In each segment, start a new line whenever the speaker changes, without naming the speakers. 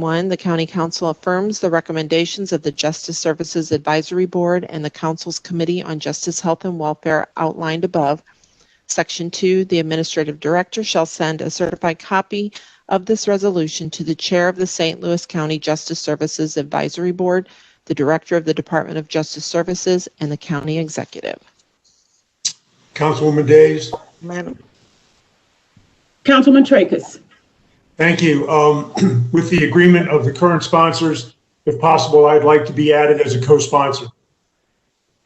One, the county council affirms the recommendations of the Justice Services Advisory Board and the council's Committee on Justice, Health, and Welfare outlined above. Section two, the administrative director shall send a certified copy of this resolution to the chair of the St. Louis County Justice Services Advisory Board, the director of the Department of Justice Services, and the county executive.
Councilwoman Days,
Madam,
Councilman Tracus.
thank you. Um, With the agreement of the current sponsors, if possible, I'd like to be added as a co-sponsor.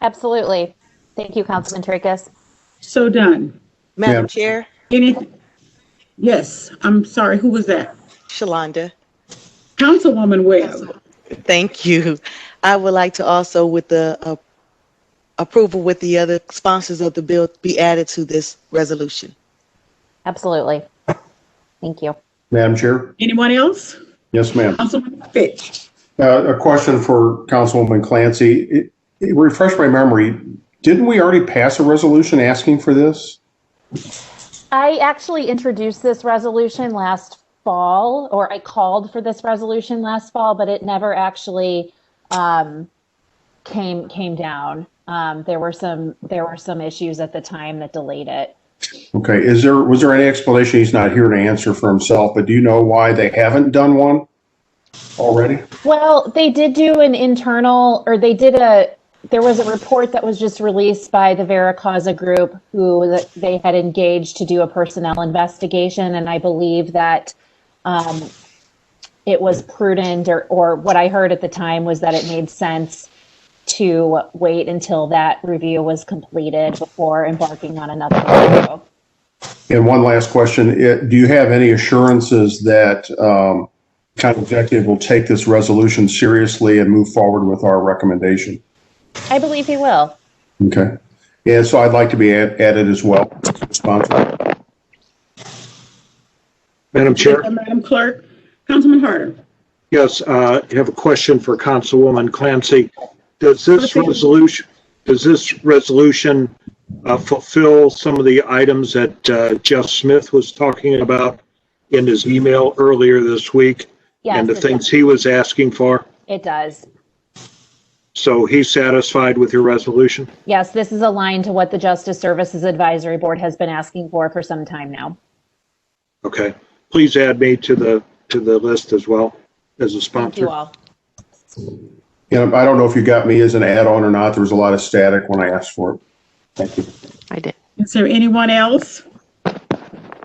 Absolutely. Thank you, Councilman Tracus.
So done.
Madam Chair,
Any, yes, I'm sorry, who was that?
Shalonda,
Councilwoman Webb.
thank you. I would like to also, with the uh, approval with the other sponsors of the bill, be added to this resolution.
Absolutely. Thank you.
Madam Chair?
Anyone else?
Yes, ma'am.
Councilman Fitch.
Uh, A question for Councilwoman Clancy. It- it- Refresh my memory, didn't we already pass a resolution asking for this?
I actually introduced this resolution last fall, or I called for this resolution last fall, but it never actually um, came came down. Um, there were some there were some issues at the time that delayed it.
Okay, is there, was there any explanation? He's not here to answer for himself, but do you know why they haven't done one already?
Well, they did do an internal, or they did a, there was a report that was just released by the Vera Causa Group, who they had engaged to do a personnel investigation, and I believe that um, it was prudent, or, or what I heard at the time was that it made sense to wait until that review was completed before embarking on another review.
And one last question, it- do you have any assurances that um, county executive will take this resolution seriously and move forward with our recommendation?
I believe he will.
Okay. And so I'd like to be add- added as well. Sponsor.
Madam Chair,
Madam Clerk. Councilman Harder.
yes, uh, I have a question for Councilwoman Clancy. Does this
Okay.
resolution, does this resolution uh, fulfill some of the items that uh, Jeff Smith was talking about in his email earlier this week?
Yes,
And the
it
things
does.
he was asking for?
It does.
So he's satisfied with your resolution?
Yes, this is aligned to what the Justice Services Advisory Board has been asking for for some time now.
Okay. Please add me to the, to the list as well as a
Thank you
sponsor.
all.
And I don't know if you got me as an add-on or not. There was a lot of static when I asked for it. Thank you.
I did.
Is there anyone else?
I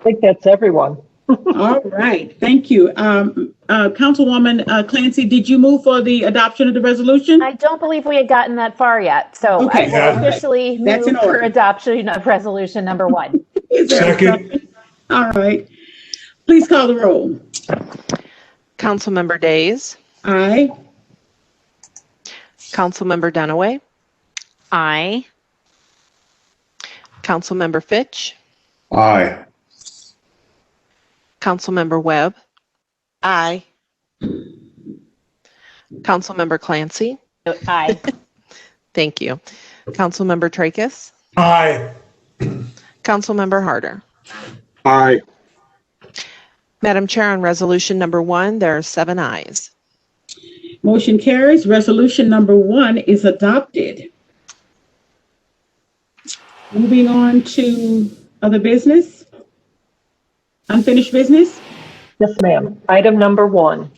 think that's everyone.
All right, thank you. Um, uh, Councilwoman uh, Clancy, did you move for the adoption of the resolution?
I don't believe we had gotten that far yet, so I
Okay.
Yeah.
will officially move
That's in order.
for adoption of resolution number one.
Is there a
Second.
All right. Please call the roll.
Councilmember Days,
Aye.
Councilmember Dunaway,
Aye.
Councilmember Fitch,
Aye.
Councilmember Webb,
Aye.
Councilmember Clancy.
Aye.
Thank you. Councilmember Tracus,
Aye.
Councilmember Harder.
Aye.
Madam Chair, on resolution number one, there are seven ayes.
Motion carries. Resolution number one is adopted. Moving on to other business. Unfinished business.
Yes, ma'am. Item number one.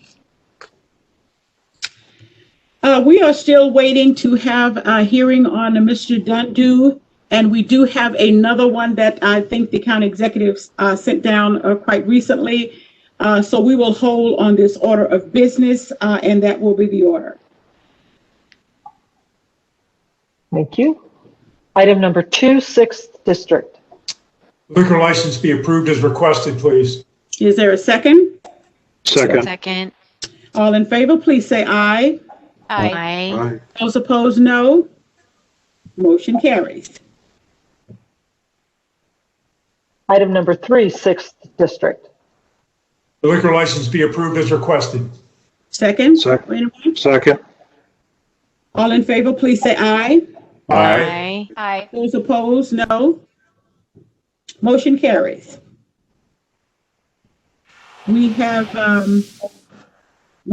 Uh, we are still waiting to have a hearing on Mr. Dundu. And we do have another one that I think the county executives, uh, sent down, uh, quite recently. Uh, so we will hold on this order of business, uh, and that will be the order.
Thank you. Item number two, sixth district.
Liquor license be approved as requested, please.
Is there a second?
Second.
Second.
All in favor, please say aye.
Aye.
Aye.
Aye.
Those opposed, no. Motion carries.
Item number three, sixth district.
The liquor license be approved as requested.
Second?
Second.
Anyone?
Second.
All in favor, please say aye.
Aye.
Aye.
Those opposed, no. Motion carries. We have um,